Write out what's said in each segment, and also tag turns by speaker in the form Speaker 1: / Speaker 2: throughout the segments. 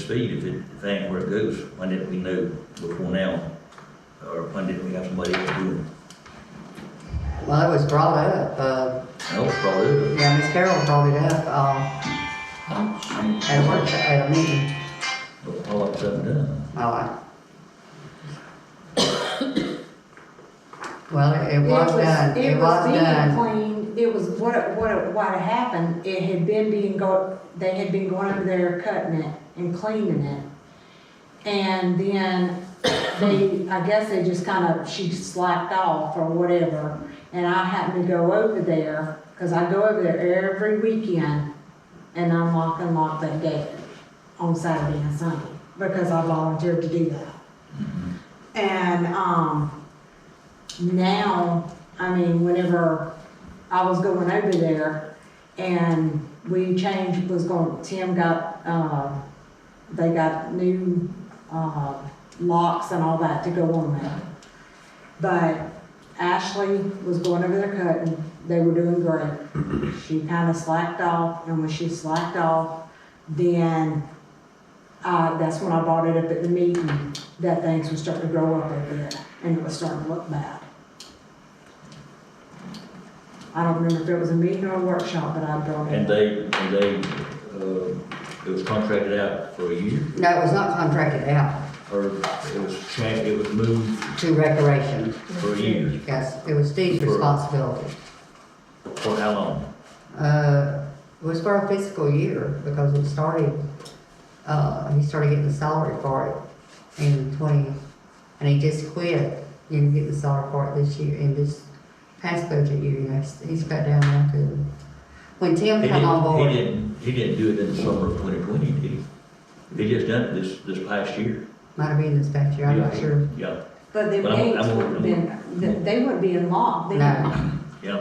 Speaker 1: speed if it, if that ain't where it goes. When did we know before now? Or when did we have somebody else doing it?
Speaker 2: Well, it was brought up, uh,
Speaker 1: No, it's probably,
Speaker 2: yeah, Miss Carol brought it up, uh,
Speaker 1: I'm,
Speaker 2: at a work, at a meeting.
Speaker 1: but all of a sudden done.
Speaker 2: Oh, I. Well, it- it was done, it was
Speaker 3: being
Speaker 2: done.
Speaker 3: cleaned, it was what, it- what, it- what had happened, it had been being go, they had been going over there cutting it and cleaning it. And then they, I guess they just kind of, she slacked off or whatever, and I happened to go over there, cause I go over there every weekend and unlock and lock that gate on Saturday and Sunday, because I volunteered to do that. And, um, now, I mean, whenever I was going over there and we changed, was going, Tim got, uh, they got new, uh, locks and all that to go on there. But Ashley was going over there cutting, they were doing great. She kinda slacked off, and when she slacked off, then, uh, that's when I brought it up at the meeting, that things were starting to grow up over there, and it was starting to look bad. I don't remember if it was a meeting or a workshop, but I brought
Speaker 1: And
Speaker 3: it.
Speaker 1: they, and they, uh, it was contracted out for a year,
Speaker 2: No, it was not contracted out
Speaker 1: or it was tran, it was moved
Speaker 2: to recreation.
Speaker 1: for a year,
Speaker 2: Yes, it was Steve's
Speaker 1: For-
Speaker 2: responsibility.
Speaker 1: for how long?
Speaker 2: Uh, it was for a fiscal year because it started, uh, he started getting the salary for it in twenty, and he just quit. He Didn't get the salary for it this year, in this past budget year, you know, he's- he's cut down now to. When Tim
Speaker 1: He
Speaker 2: come on
Speaker 1: didn't,
Speaker 2: board.
Speaker 1: he didn't, he didn't do it in the summer of twenty twenty, did he? He just done it this, this past year.
Speaker 2: Might have been this past year, I'm not
Speaker 1: Yeah,
Speaker 2: sure.
Speaker 1: Yeah,
Speaker 3: But the
Speaker 1: But I'm-
Speaker 3: gates
Speaker 1: I'm-
Speaker 3: would have been, they- they would be unlocked. They-
Speaker 2: No,
Speaker 1: yeah.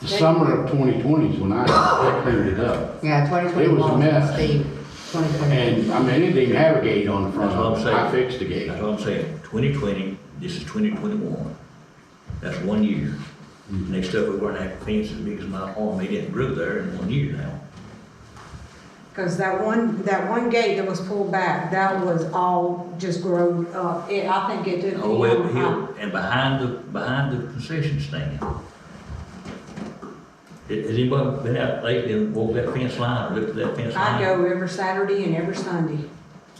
Speaker 4: The summer of 2020 is when I cleaned it up.
Speaker 2: yeah, twenty twenty
Speaker 4: It was a
Speaker 2: one,
Speaker 4: mess.
Speaker 2: Steve, twenty twenty.
Speaker 4: And, I mean, it didn't have a gate on the front.
Speaker 1: That's what I'm saying.
Speaker 4: I fixed the gate.
Speaker 1: That's what I'm saying, twenty twenty, this is twenty twenty-one, that's one year.
Speaker 4: Mm-hmm.
Speaker 1: Next up, we're gonna have a fence as big as my arm, they didn't grow there in one year now.
Speaker 3: Because that one, that one gate that was pulled back, that was all just grown up. It, I think it did.
Speaker 1: All the way up the hill, Oh, and behind the, behind the concession stand. Has has anybody been out lately and walked that fence line, or looked at that fence line?
Speaker 3: I go every Saturday and every Sunday.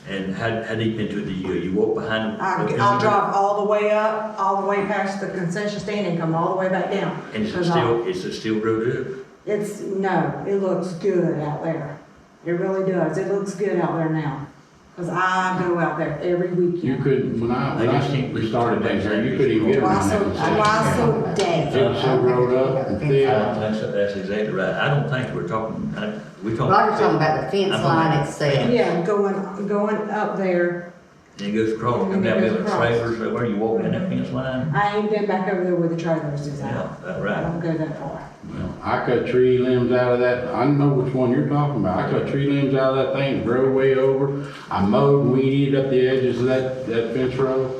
Speaker 1: And how, how deep into it do you, go? you walk behind? the
Speaker 3: I,
Speaker 1: fence
Speaker 3: I'll
Speaker 1: line,
Speaker 3: drive all the way up, all the way past the concession stand and come all the way back down.
Speaker 1: And is it
Speaker 3: 'Cause I-
Speaker 1: still, is it still rooted up?
Speaker 3: It's, no, it looks good out there. It really does. It looks good out there now. Because I go out there every
Speaker 4: You
Speaker 3: weekend.
Speaker 4: couldn't, when I, when I started down there, you couldn't even get
Speaker 3: Why
Speaker 4: around
Speaker 3: so,
Speaker 4: that.
Speaker 3: why so dead?
Speaker 4: It was so rolled up and
Speaker 1: I don't
Speaker 4: thick.
Speaker 1: think so, that's exactly right, I don't think we're talking, I, we're talking.
Speaker 2: Roger's talking about the fence
Speaker 1: I'm talking
Speaker 2: line
Speaker 1: about-
Speaker 2: itself.
Speaker 3: Yeah, going, going up there
Speaker 1: And it goes across, come
Speaker 3: And it
Speaker 1: down
Speaker 3: goes
Speaker 1: there with
Speaker 3: across.
Speaker 1: trailers, so where you walk in that fence line?
Speaker 3: I ain't been back over there where the trailers is
Speaker 1: Yeah,
Speaker 3: at.
Speaker 1: that
Speaker 3: I don't
Speaker 1: right.
Speaker 3: go that far.
Speaker 4: Well, I cut tree limbs out of that. I know which one you're talking about. I cut tree limbs out of that thing, drove way over. I mowed, weeded up the edges of that, that fence row.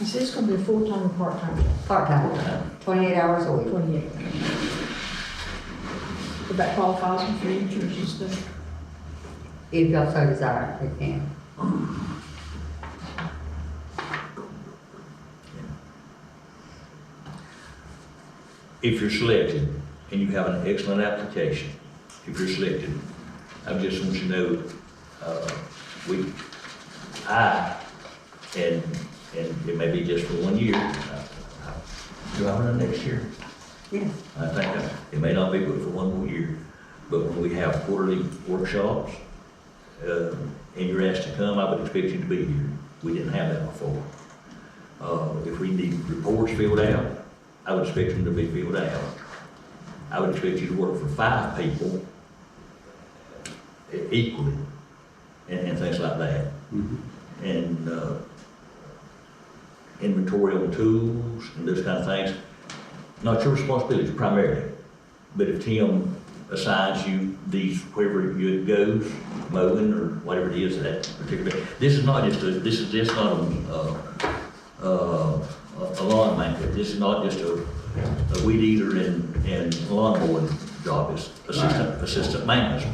Speaker 5: Is this gonna be a full-time or part-time job?
Speaker 2: Part-time, twenty-eight hours a week.
Speaker 5: Twenty-eight. Would that qualify us for insurance and stuff?
Speaker 2: If y'all so desire, we can.
Speaker 1: If you're selected and you have an excellent application, if you're selected, I just want you to know, uh, we, I, and, and it may be just for one year. uh, Do I run next year?
Speaker 2: Yes.
Speaker 1: I think that it may not be good for one more year, but when we have quarterly workshops, uh, and you're asked to come, I would expect you to be here. We didn't have that before. Uh, if we need reports filled out, I would expect them to be filled out. I would expect you to work for five people uh, equally, and, and things like that
Speaker 4: Mhm.
Speaker 1: and uh, inventory on tools and those kind of things. Not your responsibility primarily, but if Tim assigns you these wherever you goes, mowing or whatever it is that particular, this is not just a, this is just not a, uh, uh, a lawn maker, this is not just a a weed eater and, and lawn mowing job is assistant, assistant maintenance